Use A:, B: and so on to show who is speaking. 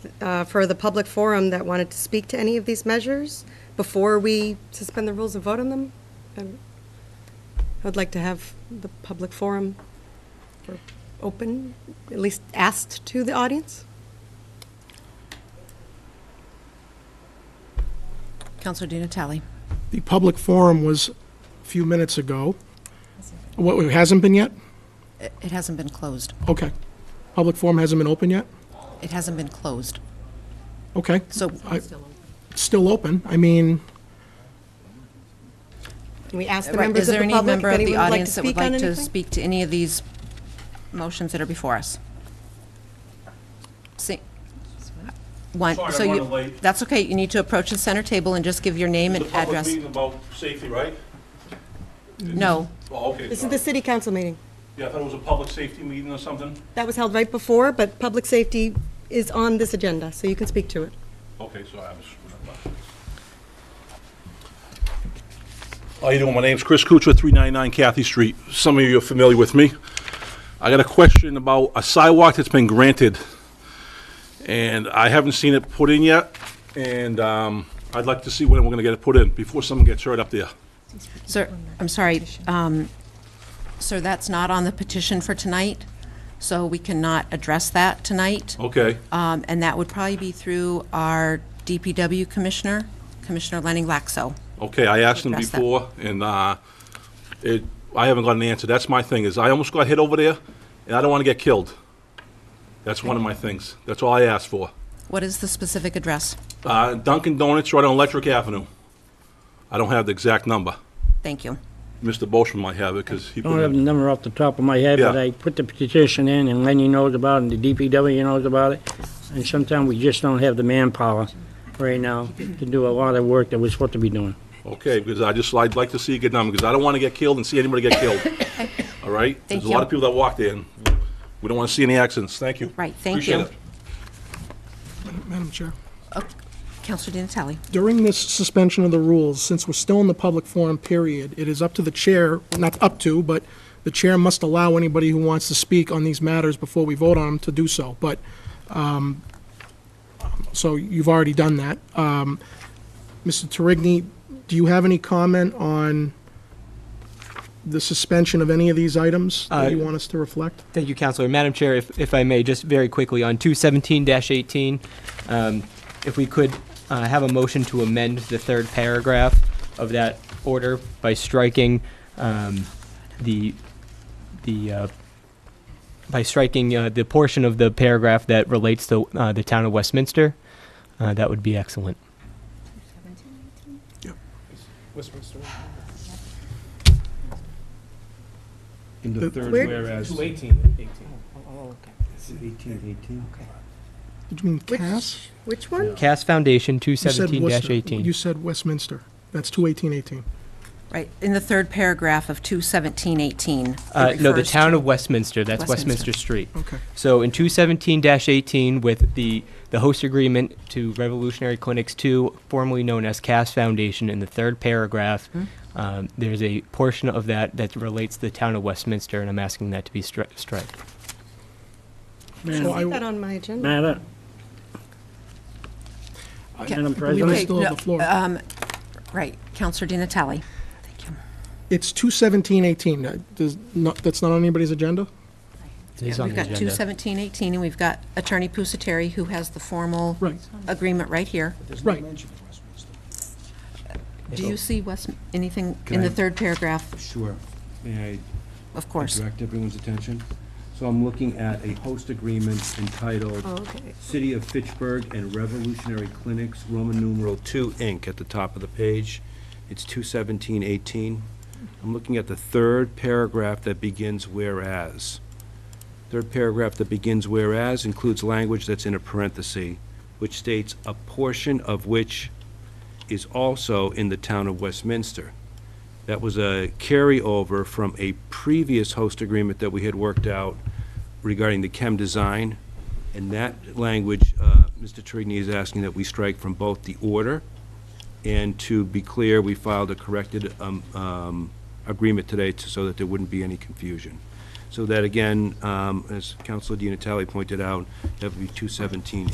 A: uh, for the public forum that wanted to speak to any of these measures before we suspend the rules and vote on them? Um, I'd like to have the public forum for- open, at least asked to the audience.
B: Counselor Di Natale.
C: The public forum was a few minutes ago. What, it hasn't been yet?
B: It it hasn't been closed.
C: Okay. Public forum hasn't been open yet?
B: It hasn't been closed.
C: Okay.
B: So
C: I- It's still open. I mean,
A: Can we ask the
B: Right,
A: members
B: is
A: of
B: there
A: the
B: any
A: public if
B: member of the
A: anyone would like to
B: audience that would
A: speak on
B: like to
A: anything?
B: speak to any of these motions that are before us? See, one,
D: Sorry, I'm
B: so you,
D: running late.
B: that's okay, you need to approach the center table and just give your name and
D: It's a public
B: address.
D: meeting about safety, right?
B: No,
D: Oh, okay.
A: This is
D: sorry.
A: the city council meeting.
D: Yeah, I thought it was a public safety meeting or something.
A: That was held right before, but public safety is on this agenda, so you can speak to it.
D: Okay, so I was. How you doing? My name's Chris Kuchar, 399 Kathy Street. Some of you are familiar with me. I got a question about a sidewalk that's been granted, and I haven't seen it put in yet, and um, I'd like to see when we're going to get it put in, before someone gets hurt up there.
B: sir, I'm sorry, um, sir, that's not on the petition for tonight, so we cannot address that tonight.
D: Okay,
B: Um, and that would probably be through our DPW commissioner, Commissioner Lenning Laxo.
D: okay, I asked them
B: Address that.
D: before, and uh, it, I haven't got an answer. That's my thing, is I almost got hit over there, and I don't want to get killed. That's one of my things. That's all I asked for.
B: What is the specific address?
D: Uh, Dunkin' Donuts right on Electric Avenue. I don't have the exact number.
B: Thank you.
D: Mr. Boschman might have it, because he
E: I don't have the
D: put
E: number off the top of my head, but
D: Yeah.
E: I put the petition in, and Lenny knows about it, and the DPW knows about it. And sometimes we just don't have the manpower right now to do a lot of work that we're supposed to be doing.
D: Okay, because I just, I'd like to see a good number, because I don't want to get killed and see anybody get killed. All right? There's a lot of
B: you.
D: people that walk there, and we don't want to see any accidents. Thank you.
B: Right, thank
D: Appreciate
B: you.
D: it.
C: Madam Chair,
B: Counselor Di Natale.
C: during this suspension of the rules, since we're still in the public forum period, it is up to the chair, not up to, but the chair must allow anybody who wants to speak on these matters before we vote on them to do so. But, um, so you've already done that. Um, Mr. Terigny, do you have any comment on the suspension of any of these items that you
F: Uh,
C: want us to reflect?
F: Thank you, Counselor. Madam Chair, if, if I may, just very quickly, on 217-18, um, if we could uh, have a motion to amend the third paragraph of that order by striking um, the, the, uh, by striking uh, the portion of the paragraph that relates to uh, the town of Westminster, uh, that would be excellent.
G: In the
C: But
G: third
A: where-
G: whereas.
C: Did you mean
A: Which-
C: Cass?
A: Which one?
F: Cass Foundation,
C: You said Worcester.
F: 217-18.
C: You said Westminster. That's two eighteen eighteen.
B: Right, in the third paragraph of 21718.
F: Uh, no, the town of Westminster, that's
B: Westminster. Mm.
F: Westminster Street.
C: Okay.
F: So in 217-18, with the, the host agreement to Revolutionary Clinics 2, formerly known as Cass Foundation, in the third paragraph,
B: Hmm.
F: um, there's a portion of that that relates to the town of Westminster, and I'm asking that to be stri- striked.
C: So
A: Is that
C: I,
A: on my agenda?
E: Madam, Madam
C: believe I
E: President,
C: still have the floor.
B: Right, Counselor Di Natale. Thank you.
C: It's two seventeen eighteen. That does not, that's not on anybody's agenda?
F: It is on
B: We've
F: the
B: got
F: agenda.
B: 21718, and we've got Attorney Pusateri, who has the formal
C: Right,
B: agreement right here.
C: right.
B: Do you see West, anything in the
G: Can I-
B: third paragraph?
G: Sure. May
B: Of
G: I
B: course.
G: direct everyone's attention? So I'm looking at a host agreement entitled
A: Oh, okay.
G: City of Fitchburg and Revolutionary Clinics, Roman numeral two, Inc., at the top of the page. It's two seventeen eighteen. I'm looking at the third paragraph that begins whereas. Third paragraph that begins whereas includes language that's in a parenthesis, which states a portion of which is also in the town of Westminster. That was a carryover from a previous host agreement that we had worked out regarding the chem design. And that language, uh, Mr. Trigny is asking that we strike from both the order, and to be clear, we filed a corrected um, um, agreement today to- so that there wouldn't be any confusion. So that, again, um, as Counselor Di Natale pointed out, that would be 217